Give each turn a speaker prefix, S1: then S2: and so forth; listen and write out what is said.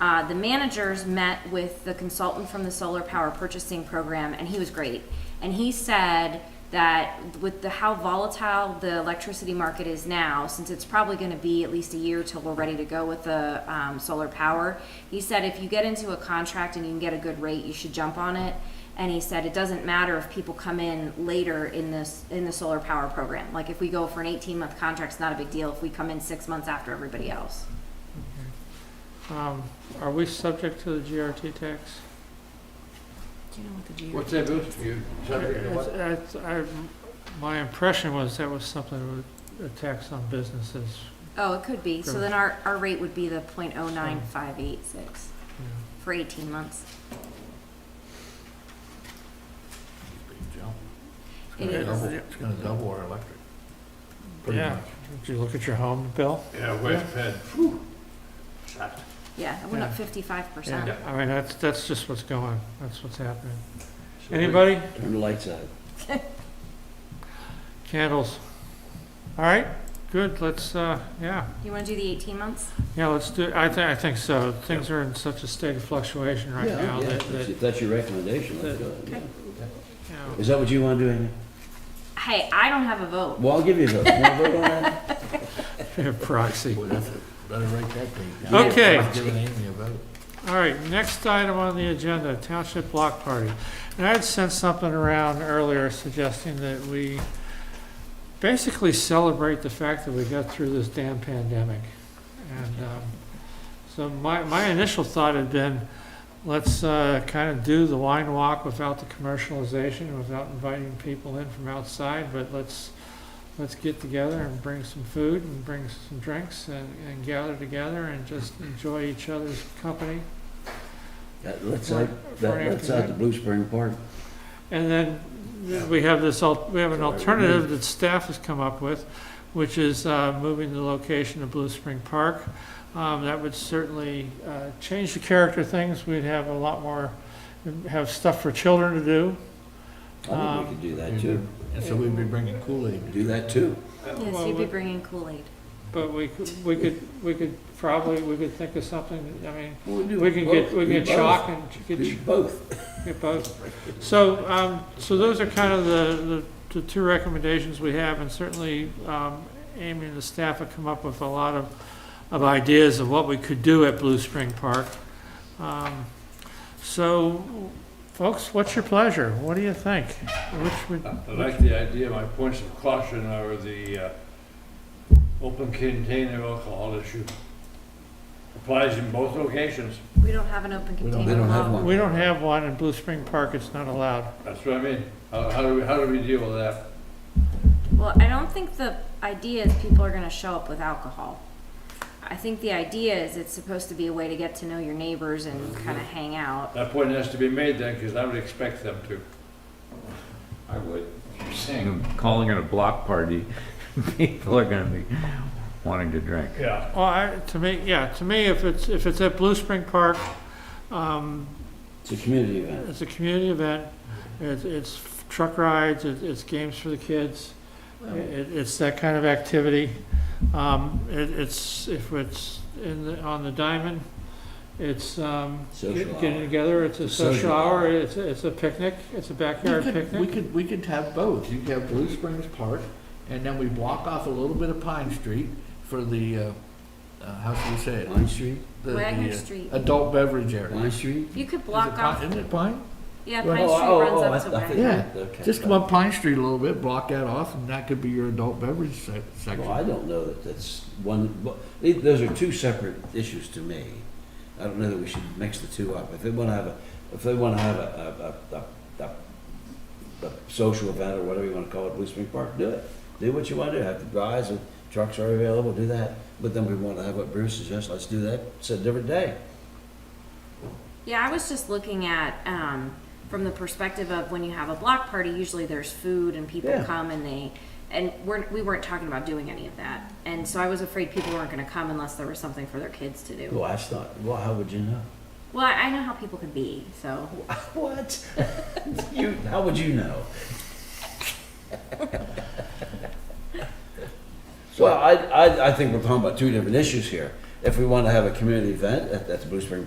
S1: Uh, the managers met with the consultant from the solar power purchasing program, and he was great. And he said that with the, how volatile the electricity market is now, since it's probably gonna be at least a year till we're ready to go with the, um, solar power, he said if you get into a contract and you can get a good rate, you should jump on it. And he said it doesn't matter if people come in later in this, in the solar power program. Like if we go for an eighteen-month contract, it's not a big deal if we come in six months after everybody else.
S2: Um, Are we subject to the GRT tax?
S1: Do you know what the
S3: What's that, Bruce? You subject to what?
S2: It's- it's- I- My impression was that was something with a tax on businesses.
S1: Oh, it could be. So
S2: Correct.
S1: then our, our rate would be the point oh nine five eight six
S2: you
S1: for eighteen months. It
S2: is.
S3: Double- It's gonna double our electric. pretty
S2: Yeah.
S3: much.
S2: know. Did you look at your home bill?
S3: Yeah, West Penn.
S1: Yeah, it went up
S2: Yeah.
S1: fifty-five percent.
S2: Yeah. I mean, that's, that's just what's going, that's what's happening. Anybody?
S4: Turn the lights on.
S2: Candles. All right, good, let's, uh, yeah,
S1: You wanna do the eighteen months?
S2: yeah, let's do, I thi, I think so. Things are in such a state of fluctuation right now that, that, you
S4: If that's your recommendation, let's do it. yeah.
S2: know,
S4: Is that what you want to do, Amy?
S1: Hey, I don't have a vote.
S4: Well, I'll give you a vote. You wanna vote on that?
S2: proxy.
S3: Boy, that's a- Better write that thing down.
S2: Okay.
S3: I'm not giving Amy a vote.
S2: All right, next item on the agenda, Township Block Party. And I had sent something around earlier suggesting that we basically celebrate the fact that we got through this damn pandemic. And um, so my, my initial thought had been, let's kind of do the wine walk without the commercialization, without inviting people in from outside, but let's, let's get together and bring some food and bring some drinks and, and gather together and just enjoy each other's company.
S4: That- Let's out,
S2: For- for
S4: that- let's out the
S2: afternoon.
S4: Blue Spring Park.
S2: And then we have this, al- we have an
S4: Mm.
S2: alternative that staff has come up with, which is uh, moving the location of Blue Spring Park. Um, That would certainly uh, change the character of things. We'd have a lot more, have stuff for children to do.
S4: I
S2: Um,
S4: think we could do that too.
S3: And so we'd be bringing Kool-Aid.
S4: Do that too.
S1: Yes,
S2: Well,
S1: you'd be
S2: we-
S1: bringing Kool-Aid.
S2: But we could, we could, we could probably, we could think of something, I mean,
S4: Well, do
S2: we can get,
S4: both.
S2: we can
S4: Do
S2: get
S4: both.
S2: chalk and get
S4: Do both.
S2: Get both. So, um, so those are kind of the, the, the two recommendations we have, and certainly, um, Amy and the staff have come up with a lot of, of ideas of what we could do at Blue Spring Park. Um, So, folks, what's your pleasure? What do you think? Which would,
S5: I like the idea, my points of caution are the uh, open container alcohol issue. Applies in both locations,
S1: We don't have an open
S3: We don't-
S1: container.
S4: they don't have
S1: law.
S4: one.
S2: we don't have one in Blue Spring Park, it's not allowed.
S5: that's what I mean. How, how do we, how do we deal with that?
S1: Well, I don't think the idea is people are gonna show up with alcohol. I think the idea is it's supposed to be a way to get to know your neighbors and kinda hang out.
S5: That point has to be made then, because I would expect them to.
S6: I would. You're saying, calling it a block party, people are gonna be wanting to drink.
S5: Yeah.
S2: Well, Oh, I, to me, yeah, to me, if it's, if it's at Blue Spring Park, um,
S4: It's a community event.
S2: It's a community event, it's, it's truck rides, it- it's games for the kids, it, it's that kind of activity. Um, it, it's, if it's in the, on the diamond, it's, um,
S4: Social
S2: get- getting
S4: hour.
S2: together, it's a
S4: It's a social
S2: social hour,
S4: hour.
S2: it's, a- it's a picnic, it's a backyard
S3: We could- We
S2: picnic.
S3: could, we could have both. You could have Blue Springs Park, and then we block off a little bit of Pine Street for the, uh, uh, how should we say it?
S4: Pine Street,
S3: The-
S1: Wagner
S3: the, uh,
S1: Street.
S3: Adult beverage area.
S4: Pine Street?
S1: You could
S3: Is it
S1: block
S3: Pine-
S1: off,
S3: Isn't it Pine?
S1: yeah,
S4: Oh,
S1: Pine Street
S4: oh, oh, I-
S1: runs up
S4: I
S1: to Wagner.
S4: think-
S3: Yeah,
S4: okay.
S3: Just come up Pine Street a little bit, block that off, and that could be your adult beverage sec-
S4: Well,
S3: section.
S4: I don't know that that's one, well, the- those are two separate issues to me. I don't know that we should mix the two up. If they want to have a, if they want to have a, a, a, a, a- a social event or whatever you want to call it, Blue Spring Park, do it. Do what you want to, do. have the guys and trucks are available, do that. But then we want to have what Bruce suggests, let's do that, it's a different day.
S1: Yeah, I was just looking at, um, from the perspective of when you have a block party, usually there's food and people
S4: Yeah.
S1: come and they, and we're, we weren't talking about doing any of that. And so I was afraid people weren't gonna come unless there was something for their kids to do.
S4: Well, that's not, well, how would you know?
S1: Well, I I know how people can be, so.
S4: What? You, how would you know? Well, I, I, I think we're talking about two different issues here. If we want to have a community event at, at the Blue Spring